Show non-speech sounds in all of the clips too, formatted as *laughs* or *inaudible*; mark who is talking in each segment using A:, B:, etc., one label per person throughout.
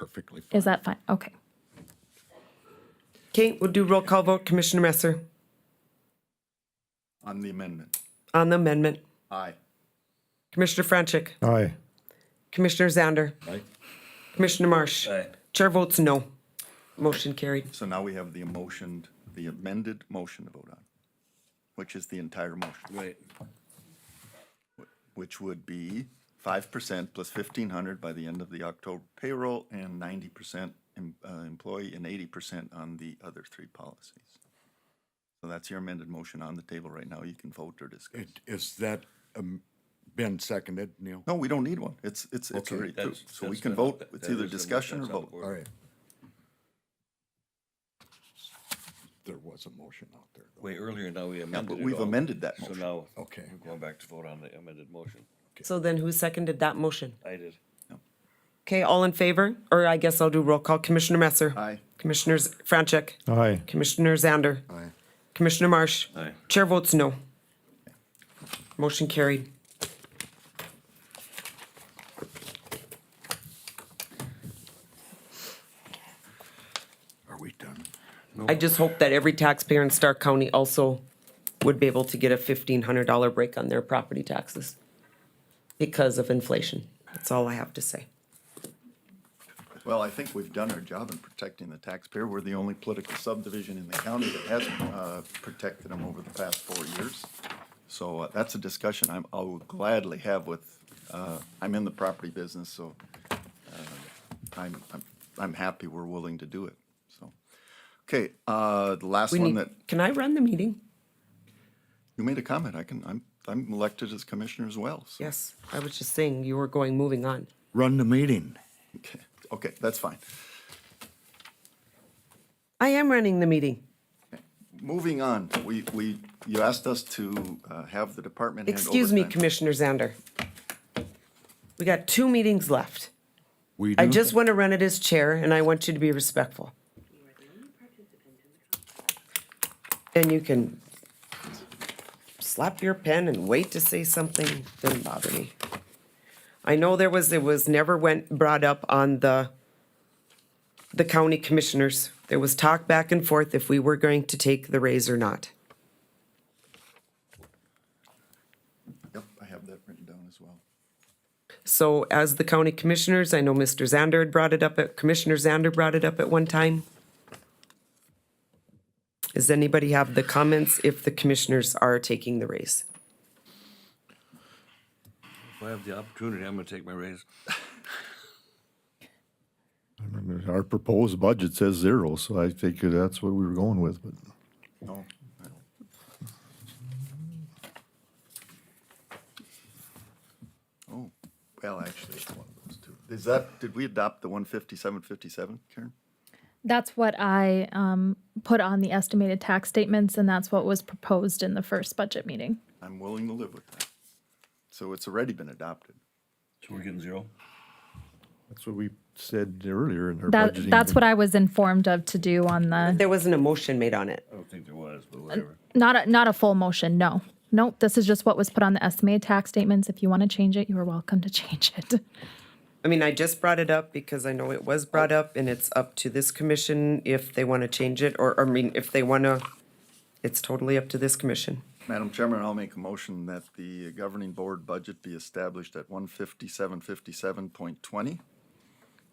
A: perfectly fine.
B: Is that fine? Okay.
C: Okay, we'll do roll call vote. Commissioner Messer
A: On the amendment.
C: on the amendment.
A: Aye.
C: Commissioner Franchek.
D: Aye.
C: Commissioner Zander.
A: Right?
C: Commissioner Marsh.
E: Aye.
C: Chair votes no. Motion carried.
A: So now we have the emotioned, the amended motion to vote on, which is the entire motion,
E: Right.
A: which would be five percent plus fifteen hundred by the end of the October payroll and ninety percent uh, employee and eighty percent on the other three policies. So that's your amended motion on the table right now. You can vote or discuss.
F: It- Is that um, been seconded, Neil?
A: No, we don't need one. It's, it's, it's
F: Okay.
A: already approved.
E: That's-
A: So we
E: that's
A: can
E: been-
A: vote.
E: that-
A: It's
E: that
A: either
E: is the
A: discussion or
E: motion that's on the
A: vote.
E: board.
F: All right. There was a motion out there. though.
E: Way earlier, now we amended
A: but
E: it
A: we've
E: all.
A: amended that motion.
E: So now,
F: Okay.
E: we're going back to vote on the amended motion.
C: So then who seconded that motion?
E: I did.
C: Okay, all in favor? Or I guess I'll do roll call. Commissioner Messer.
A: Aye.
C: Commissioners Franchek.
D: Aye.
C: Commissioner Zander.
F: Aye.
C: Commissioner Marsh.
E: Aye.
C: Chair votes no. Motion carried.
F: Are we done?
C: I just hope that every taxpayer in Stark County also would be able to get a fifteen hundred dollar break on their property taxes because of inflation. That's all I have to say.
A: Well, I think we've done our job in protecting the taxpayer. We're the only political subdivision in the county that has uh, protected them over the past four years. So uh, that's a discussion I'm, I will gladly have with, uh, I'm in the property business, so uh, I'm, I'm, I'm happy we're willing to do it, so. Okay, uh, the last
C: We
A: one
C: need,
A: that,
C: can I run the meeting?
A: you made a comment, I can, I'm, I'm elected as commissioner as well, so.
C: Yes, I was just saying you were going, moving on.
F: Run the meeting.
A: Okay, Okay, that's fine.
C: I am running the meeting.
A: Moving on, we, we, you asked us to uh, have the department head
C: Excuse me,
A: overtime.
C: Commissioner Zander. We got two meetings left.
F: We
C: I
F: do?
C: just want to run it as chair and I want you to be respectful. And you can slap your pen and wait to say something, doesn't bother me. I know there was, it was never went, brought up on the, the county commissioners. There was talk back and forth if we were going to take the raise or not.
A: Yep, I have that written down as well.
C: So as the county commissioners, I know Mr. Zander had brought it up, at Commissioner Zander brought it up at one time. Does anybody have the comments if the commissioners are taking the raise?
E: If I have the opportunity, I'm gonna take my raise.
D: Our proposed budget says zero, so I think that's what we were going with, but
A: No, I don't. Oh, well, actually, it's one of those two. Is that, did we adopt the one fifty-seven, fifty-seven, Karen?
B: That's what I um, put on the estimated tax statements, and that's what was proposed in the first budget meeting.
A: I'm willing to live with that. So it's already been adopted.
E: So we're getting zero?
D: that's what we said earlier in our budgeting.
B: That, that's what I was informed of to do on the,
C: There wasn't a motion made on it.
E: I don't think there was, but whatever.
B: not a, not a full motion, no. Nope, this is just what was put on the estimated tax statements. If you want to change it, you are welcome to *laughs* change it.
C: I mean, I just brought it up because I know it was brought up and it's up to this commission if they want to change it or, I mean, if they want to, it's totally up to this commission.
A: Madam Chairman, I'll make a motion that the governing board budget be established at one fifty-seven, fifty-seven point twenty,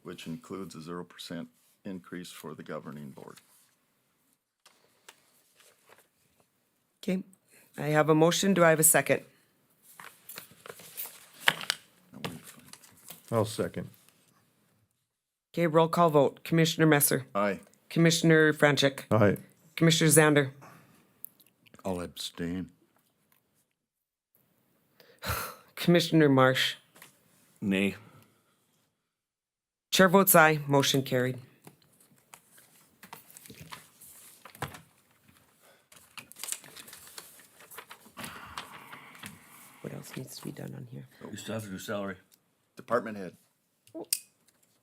A: which includes a zero percent increase for the governing board.
C: Okay, I have a motion. Do I have a second?
A: Now, wait a minute.
D: I'll second.
C: Okay, roll call vote. Commissioner Messer,
A: Aye.
C: Commissioner Franchek,
D: Aye.
C: Commissioner Zander.
F: I'll abstain.
C: Commissioner Marsh.
E: Nay.
C: Chair votes aye, motion carried. What else needs to be done on here?
E: We still have to do salary.
A: Department head.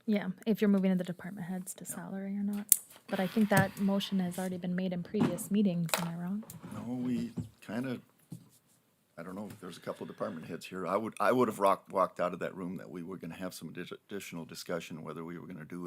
B: Yeah, if you're moving to the department heads to salary or not. But I think that motion has already been made in previous meetings, am I wrong?
A: No, we kind of, I don't know, there's a couple of department heads here. I would, I would have rocked, walked out of that room that we were going to have some addi- additional discussion whether we were going to do